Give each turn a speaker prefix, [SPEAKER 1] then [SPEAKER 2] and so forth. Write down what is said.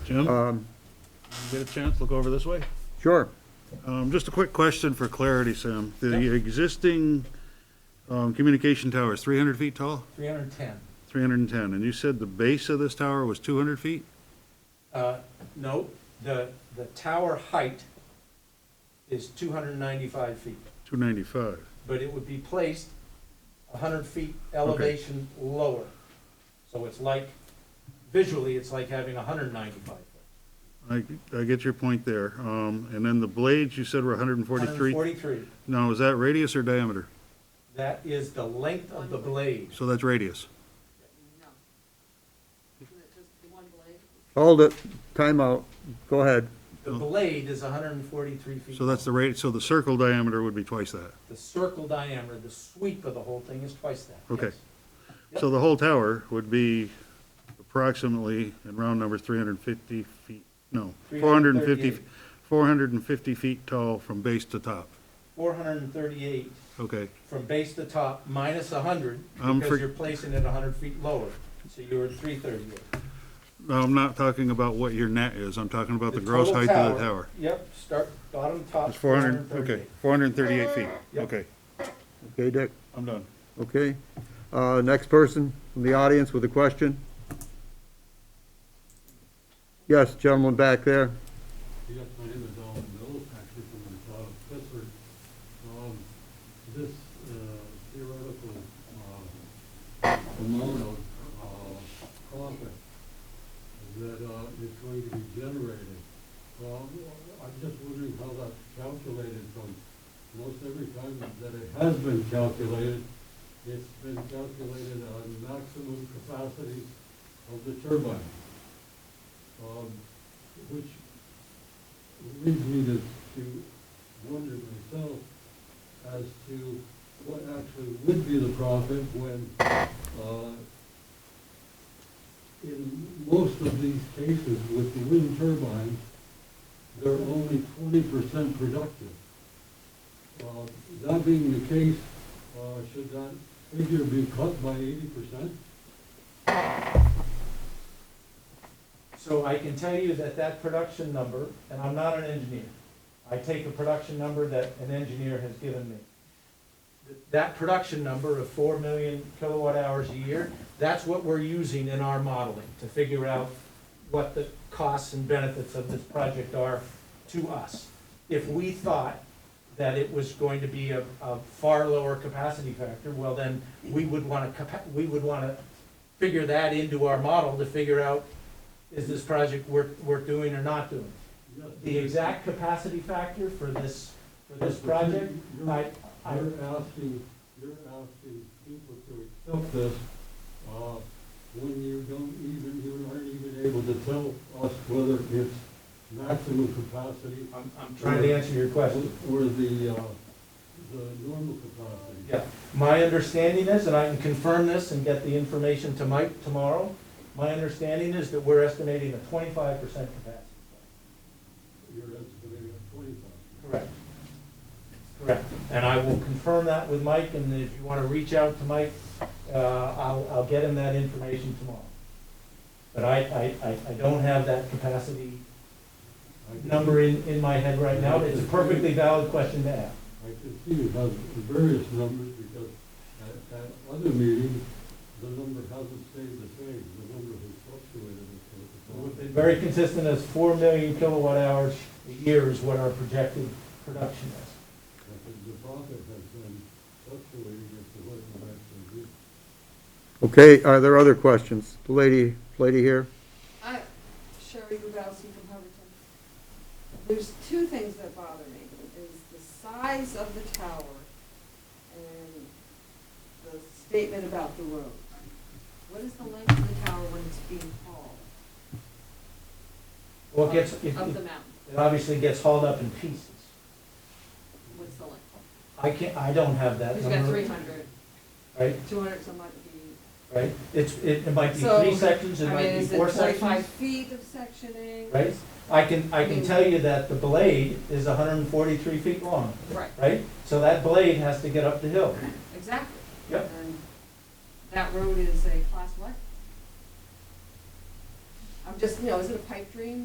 [SPEAKER 1] Jim, you
[SPEAKER 2] Um,
[SPEAKER 1] get a chance, look over this way.
[SPEAKER 2] Sure.
[SPEAKER 1] Um, Just a quick question for clarity, Sam. The existing um, communication tower is 300 feet tall?
[SPEAKER 3] 310.
[SPEAKER 1] 310, and you said the base of this tower was 200 feet?
[SPEAKER 3] Uh, No, the, the tower height is 295 feet,
[SPEAKER 1] 295.
[SPEAKER 3] but it would be placed 100 feet elevation lower. So it's like, visually, it's like having 195 foot.
[SPEAKER 1] I, I get your point there. Um, And then the blades, you said were 143.
[SPEAKER 3] 143.
[SPEAKER 1] Now, is that radius or diameter?
[SPEAKER 3] That is the length of the blade.
[SPEAKER 1] So that's radius.
[SPEAKER 4] No. Isn't it just the one blade?
[SPEAKER 2] Hold it. Timeout. Go ahead.
[SPEAKER 3] The blade is 143 feet.
[SPEAKER 1] So that's the rate, so the circle diameter would be twice that.
[SPEAKER 3] The circle diameter, the sweep of the whole thing is twice that.
[SPEAKER 1] Okay.
[SPEAKER 3] yes.
[SPEAKER 1] So the whole tower would be approximately, in round numbers, 350 feet, no, 450,
[SPEAKER 3] 338.
[SPEAKER 1] 450 feet tall from base to top.
[SPEAKER 3] 438
[SPEAKER 1] Okay,
[SPEAKER 3] from base to top minus 100
[SPEAKER 1] I'm for-
[SPEAKER 3] because you're placing it 100 feet lower. So you're at 338.
[SPEAKER 1] now I'm not talking about what your net is, I'm talking about the gross
[SPEAKER 3] total
[SPEAKER 1] height of the tower.
[SPEAKER 3] Yep, start bottom top.
[SPEAKER 1] It's 400, okay, 438 feet,
[SPEAKER 3] Yep.
[SPEAKER 1] okay,
[SPEAKER 2] Okay, Dick?
[SPEAKER 1] I'm done.
[SPEAKER 2] Okay. Uh, Next person from the audience with a question? Yes, gentleman back there.
[SPEAKER 5] Yes, my name is Alan Mills, actually from the town of Pittsburgh. Um, this uh, theoretical, uh, amount of, uh, profit that, uh, is going to be generated, um, I'm just wondering how that's calculated from, most every time that it has been calculated, it's been calculated on maximum capacities of the turbine. Um, which leads me to, to wonder myself as to what actually would be the profit when, uh, in most of these cases with the wind turbines, they're only twenty percent productive. Uh, That being the case, uh, should that figure be cut by eighty percent?
[SPEAKER 3] So I can tell you that that production number, and I'm not an engineer, I take a production number that an engineer has given me. Th- That production number of four million kilowatt hours a year, that's what we're using in our modeling to figure out what the costs and benefits of this project are to us. If we thought that it was going to be a, a far lower capacity factor, well then, we would wanna, capa- we would wanna figure that into our model to figure out is this project worth, worth doing or not doing. The exact capacity factor for this, for this project, I, I,
[SPEAKER 5] You're asking, you're asking people to accept this, uh, when you don't even, you aren't even able to tell us whether it's maximum capacity
[SPEAKER 3] I'm, I'm trying to answer your question.
[SPEAKER 5] or the, uh, the normal capacity.
[SPEAKER 3] Yeah, my understanding is, and I can confirm this and get the information to Mike tomorrow, my understanding is that we're estimating a twenty-five percent capacity.
[SPEAKER 5] You're estimating at twenty-five.
[SPEAKER 3] Correct. Correct, and I will confirm that with Mike, and if you wanna reach out to Mike, uh, I'll, I'll get him that information tomorrow. But I, I, I, I don't have that capacity
[SPEAKER 5] I can-
[SPEAKER 3] number in, in my head right now, it's a perfectly valid question to ask.
[SPEAKER 5] I can see you have various numbers because at, at other meetings, the number hasn't stayed the same. The number has fluctuated.
[SPEAKER 3] We've been
[SPEAKER 5] with the-
[SPEAKER 3] Very consistent as four million kilowatt hours a year is what our projected production is.
[SPEAKER 5] Because the profit has been fluctuating as to what it will actually be.
[SPEAKER 2] Okay, are there other questions? The lady, lady here?
[SPEAKER 4] I, Sherry Rudowski from Hubbardton. There's two things that bother me, is the size of the tower and the statement about the road. What is the length of the tower when it's being hauled?
[SPEAKER 3] Well, it gets,
[SPEAKER 4] Up-
[SPEAKER 3] it,
[SPEAKER 4] Up the
[SPEAKER 3] it
[SPEAKER 4] mountain,
[SPEAKER 3] it obviously gets hauled up in pieces.
[SPEAKER 4] what's the length?
[SPEAKER 3] I can't, I don't have that
[SPEAKER 4] Who's
[SPEAKER 3] number.
[SPEAKER 4] got three hundred,
[SPEAKER 3] Right,
[SPEAKER 4] two hundred, some might be.
[SPEAKER 3] right, it's, it, it might be
[SPEAKER 4] So,
[SPEAKER 3] three sections, it
[SPEAKER 4] I mean,
[SPEAKER 3] might be
[SPEAKER 4] is it
[SPEAKER 3] four
[SPEAKER 4] forty-five
[SPEAKER 3] sections,
[SPEAKER 4] feet of sectioning?
[SPEAKER 3] right? I can, I
[SPEAKER 4] I
[SPEAKER 3] can
[SPEAKER 4] mean-
[SPEAKER 3] tell you that the blade is hundred and forty-three feet long,
[SPEAKER 4] Right,
[SPEAKER 3] right? So that blade has to get up the hill.
[SPEAKER 4] exactly.
[SPEAKER 3] Yep.
[SPEAKER 4] And That road is a class what? I'm just, you know, is it a pipe dream?